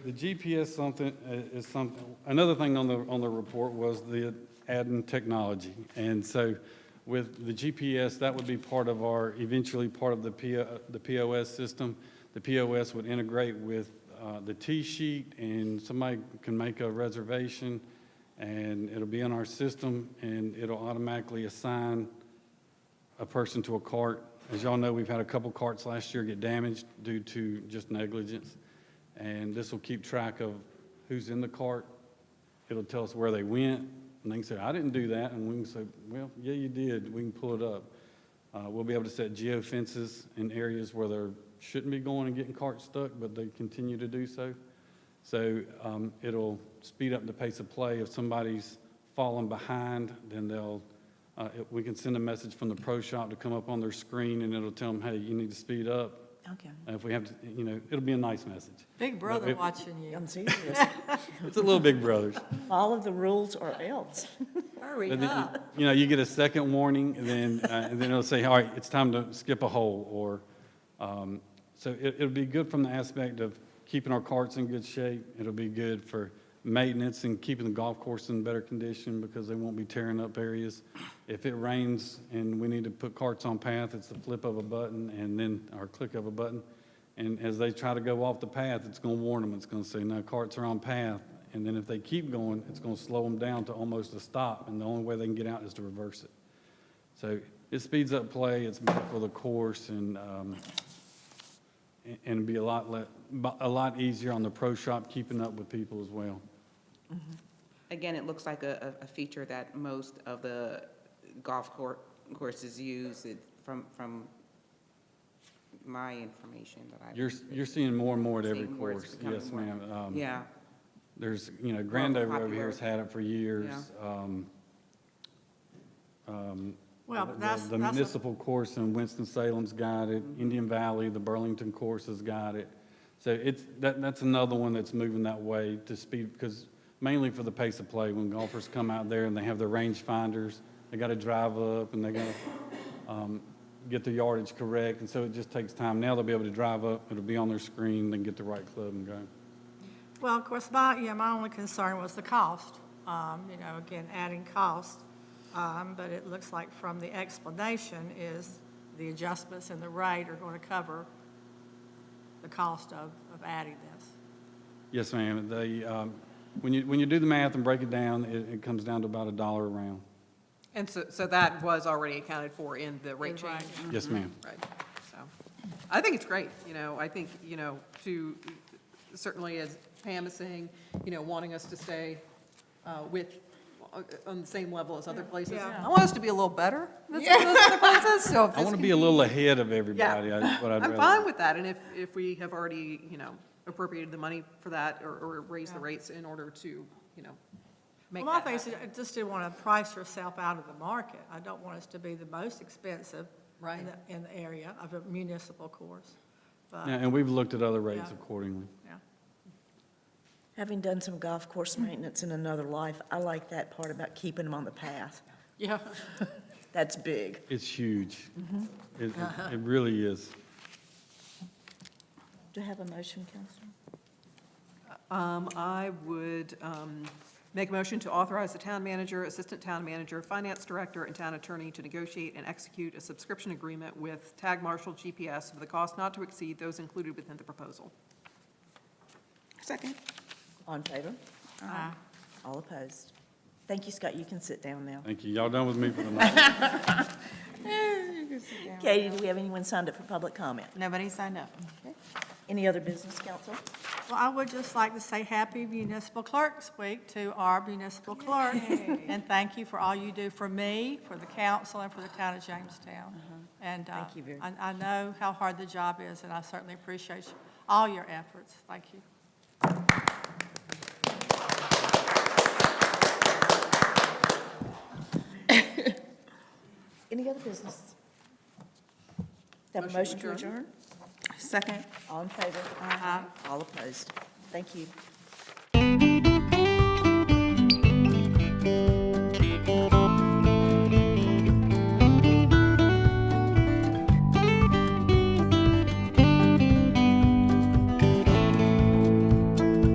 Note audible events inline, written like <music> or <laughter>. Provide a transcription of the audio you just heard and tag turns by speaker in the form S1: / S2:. S1: The GPS something, uh, is something, another thing on the, on the report was the adding technology. And so with the GPS, that would be part of our, eventually part of the PO, the POS system. The POS would integrate with uh, the T-sheet and somebody can make a reservation and it'll be in our system and it'll automatically assign a person to a cart. As y'all know, we've had a couple carts last year get damaged due to just negligence. And this will keep track of who's in the cart. It'll tell us where they went, and they can say, I didn't do that, and we can say, well, yeah, you did, we can pull it up. Uh, we'll be able to set geo fences in areas where there shouldn't be going and getting carts stuck, but they continue to do so. So, um, it'll speed up the pace of play. If somebody's falling behind, then they'll, uh, it- we can send a message from the pro shop to come up on their screen, and it'll tell them, hey, you need to speed up.
S2: Okay.
S1: And if we have to, you know, it'll be a nice message.
S3: Big brother
S1: it-
S3: watching you.
S2: I'm serious.
S1: It's a little Big Brothers.
S2: All of the rules or else.
S3: Hurry
S1: But then,
S3: up.
S1: You know, you get a second warning, and then, uh, and then it'll say, all right, it's time to skip a hole, or, um, so it, it'll be good from the aspect of keeping our carts in good shape. It'll be good for maintenance and keeping the golf course in better condition because they won't be tearing up areas. If it rains and we need to put carts on path, it's the flip of a button and then, or click of a button. And as they try to go off the path, it's gonna warn them, it's gonna say, no, carts are on path. And then if they keep going, it's gonna slow them down to almost a stop, and the only way they can get out is to reverse it. So it speeds up play, it's better for the course, and, um, and- and it'd be a lot le, bu- a lot easier on the pro shop keeping up with people as well.
S4: Again, it looks like a, a a feature that most of the golf cour- courses use It- from, from my information that I've.
S1: You're, s- you're seeing more and more at every
S4: Seeing where it's
S1: course.
S4: becoming
S1: Yes,
S4: more-
S1: ma'am. Um,
S4: Yeah,
S1: There's, you know,
S4: More of a
S1: Grandover over here has
S4: popular-
S1: had it for years. Um, um,
S3: Well,
S1: the-
S3: but that's,
S1: The
S3: that's, a- Mm-hmm.
S1: municipal course in Winston-Salem's got it, Indian Valley, the Burlington course has got it. So it's, that, that's another one that's moving that way to speed, because mainly for the pace of play, when golfers come out there and they have their range finders, they gotta drive up and they gotta, um, get their yardage correct, and so it just takes time. Now they'll be able to drive up, it'll be on their screen, then get the right club and go.
S5: Well, of course, my, yeah, my only concern was the cost. Um, You know, again, adding cost. Um, But it looks like from the explanation is the adjustments in the rate are going to cover the cost of, of adding this.
S1: Yes, ma'am. They, um, when you, when you do the math and break it down, it, it comes down to about a dollar a round.
S6: And so, so that was already accounted for in the rate
S5: In the rate,
S6: change?
S1: Yes, ma'am.
S6: Right, so, I think it's great, you know, I think, you know, to, certainly as Pam is saying, you know, wanting us to stay uh, with, on the same level as other places.
S5: Yeah.
S6: I want us to be a little better than some of those other
S1: <laughs>
S6: places, so if
S1: I
S6: this
S1: want to
S6: can
S1: be a little ahead of everybody, that's what I'd rather.
S6: I'm fine with that, and if, if we have already, you know, appropriated the money for that, or, or raised the
S5: Yeah.
S6: rates in order to, you know, make
S5: Well,
S6: that
S5: my thing is,
S6: happen.
S5: I just didn't want to price yourself out of the market. I don't want us to be the most expensive
S6: Right.
S5: in the, in the area of a municipal course.
S1: Yeah,
S5: But,
S1: And we've looked at other rates
S5: Yeah.
S1: accordingly.
S5: yeah.
S2: Having done some golf course maintenance in another life, I like that part about keeping them on the path.
S6: Yeah.
S2: That's big.
S1: It's huge.
S6: Mm-hmm.
S1: It, it- it really is.
S2: Do you have a motion, Councilman?
S6: Um, I would, um, make a motion to authorize the town manager, assistant town manager, finance director, and town attorney to negotiate and execute a subscription agreement with Tag Marshall GPS for the cost not to exceed those included within the proposal.
S4: second.
S2: All in favor?
S5: Aye.
S2: All opposed? Thank you, Scott. You can sit down now.
S1: Thank you. Y'all done with me for the night?
S2: Katie, do we have anyone signed up for public comment?
S3: nobody signed up.
S2: Any other business, council?
S5: Well, I would just like to say Happy Municipal Clerks Week to our municipal clerk. And thank you for all you do for me, for the council, and for the town of Jamestown. And uh,
S2: Uh-huh. Thank you very-
S5: I I know how hard the job is, and I certainly appreciate you- all your efforts. Thank you.
S2: Any other business? Do I have a motion to adjourn?
S3: Second.
S2: All in favor?
S5: Aye.
S2: All opposed? Thank you.